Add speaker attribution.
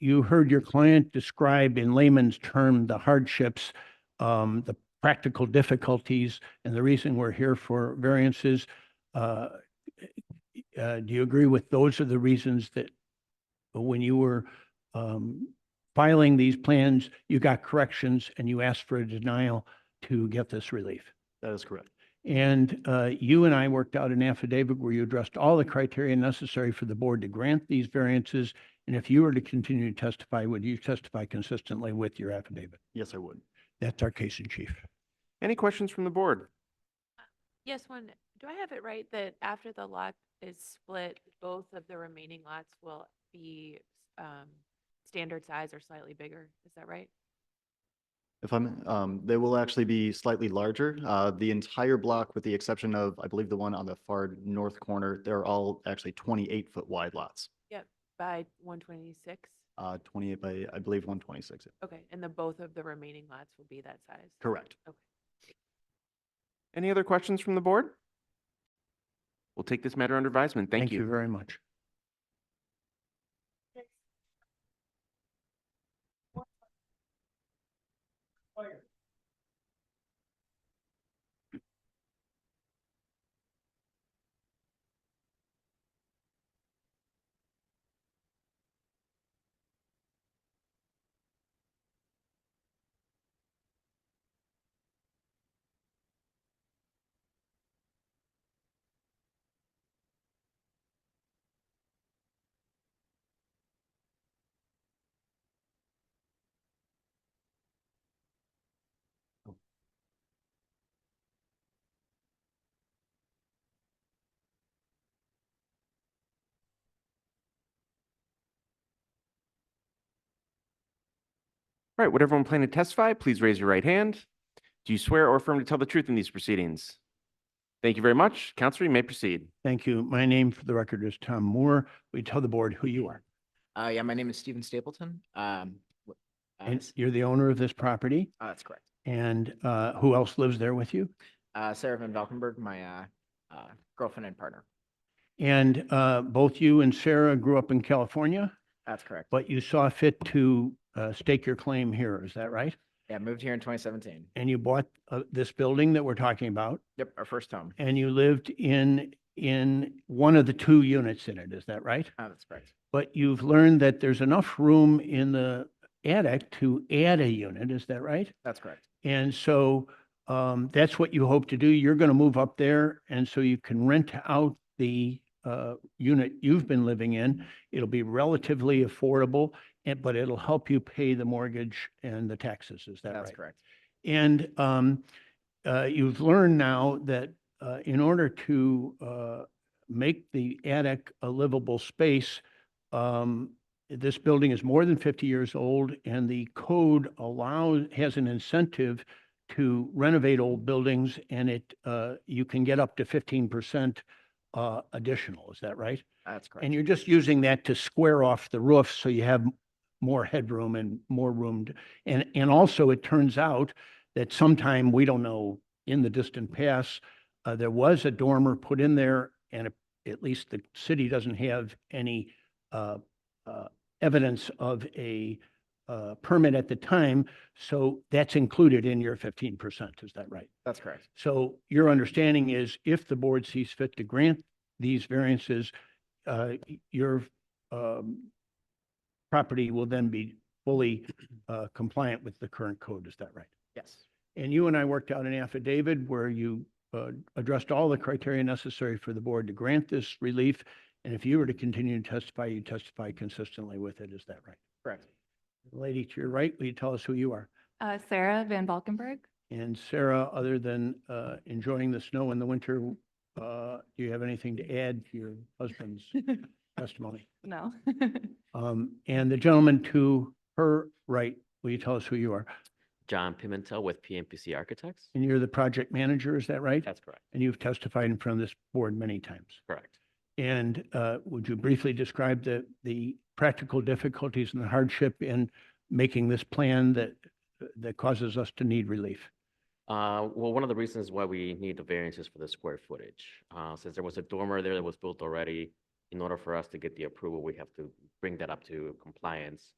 Speaker 1: you heard your client describe in layman's term the hardships, um, the practical difficulties, and the reason we're here for variances. Uh, uh, do you agree with those are the reasons that when you were, um, filing these plans, you got corrections and you asked for a denial to get this relief?
Speaker 2: That is correct.
Speaker 1: And uh, you and I worked out an affidavit where you addressed all the criteria necessary for the board to grant these variances. And if you were to continue to testify, would you testify consistently with your affidavit?
Speaker 2: Yes, I would.
Speaker 1: That's our case in chief.
Speaker 3: Any questions from the board?
Speaker 4: Yes, one, do I have it right that after the lot is split, both of the remaining lots will be um, standard size or slightly bigger? Is that right?
Speaker 2: If I'm, um, they will actually be slightly larger. Uh, the entire block, with the exception of, I believe, the one on the far north corner, they're all actually twenty-eight foot wide lots.
Speaker 4: By 126?
Speaker 2: Uh, twenty-eight by, I believe, one twenty-six.
Speaker 4: Okay, and the both of the remaining lots will be that size?
Speaker 2: Correct.
Speaker 3: Any other questions from the board? We'll take this matter under advisement. Thank you.
Speaker 1: very much.
Speaker 3: All right, would everyone plan to testify? Please raise your right hand. Do you swear or affirm to tell the truth in these proceedings? Thank you very much. Counselor, you may proceed.
Speaker 1: Thank you. My name for the record is Tom Moore. We tell the board who you are.
Speaker 5: Uh, yeah, my name is Stephen Stapleton. Um, wh- uh,
Speaker 1: And
Speaker 5: s-
Speaker 1: you're the owner of this property
Speaker 5: uh, that's correct.
Speaker 1: and uh, who else lives there with you?
Speaker 5: Uh, Sarah Van Valkenburg, my, uh, uh, girlfriend and partner.
Speaker 1: And uh, both you and Sarah grew up in California,
Speaker 5: That's correct.
Speaker 1: but you saw fit to uh, stake your claim here. Is that right?
Speaker 5: Yeah, moved here in twenty seventeen.
Speaker 1: and you bought uh, this building that we're talking about,
Speaker 5: Yep, our first home.
Speaker 1: and you lived in, in one of the two units in it, is that right?
Speaker 5: Uh, that's correct.
Speaker 1: But you've learned that there's enough room in the attic to add a unit, is that right?
Speaker 5: That's correct.
Speaker 1: And so um, that's what you hope to do. You're going to move up there, and so you can rent out the uh, unit you've been living in. It'll be relatively affordable, and- but it'll help you pay the mortgage and the taxes, is that right?
Speaker 5: That's correct.
Speaker 1: And um, uh, you've learned now that uh, in order to uh, make the attic a livable space, um, this building is more than 50 years old and the code allows, has an incentive to renovate old buildings and it, uh, you can get up to 15% uh, additional, is that right?
Speaker 5: That's correct.
Speaker 1: And you're just using that to square off the roof so you have m- more headroom and more room. to- And, and also it turns out that sometime, we don't know, in the distant past, uh, there was a dormer put in there and it- at least the city doesn't have any, uh, uh, evidence of a, uh, permit at the time. So that's included in your 15%. Is that right?
Speaker 5: That's correct.
Speaker 1: So your understanding is if the board sees fit to grant these variances, uh, y- your um, property will then be fully uh, compliant with the current code, is that right?
Speaker 5: Yes.
Speaker 1: And you and I worked out an affidavit where you uh, addressed all the criteria necessary for the board to grant this relief. And if you were to continue to testify, you testify consistently with it, is that right?
Speaker 5: Correct.
Speaker 1: Lady to your right, will you tell us who you are?
Speaker 6: Uh, Sarah Van Valkenburg.
Speaker 1: And Sarah, other than uh, enjoying the snow in the winter, uh, do you have anything to add to your husband's testimony?
Speaker 6: No.
Speaker 1: Um, And the gentleman to her right, will you tell us who you are?
Speaker 7: John Pimentel with PMPC Architects.
Speaker 1: And you're the project manager, is that right?
Speaker 7: That's correct.
Speaker 1: And you've testified in front of this board many times.
Speaker 7: Correct.
Speaker 1: And uh, would you briefly describe the, the practical difficulties and the hardship in making this plan that, that causes us to need relief?
Speaker 7: Uh, well, one of the reasons why we need the variance is for the square footage. Uh, since there was a dormer there that was built already, in order for us to get the approval, we have to bring that up to compliance.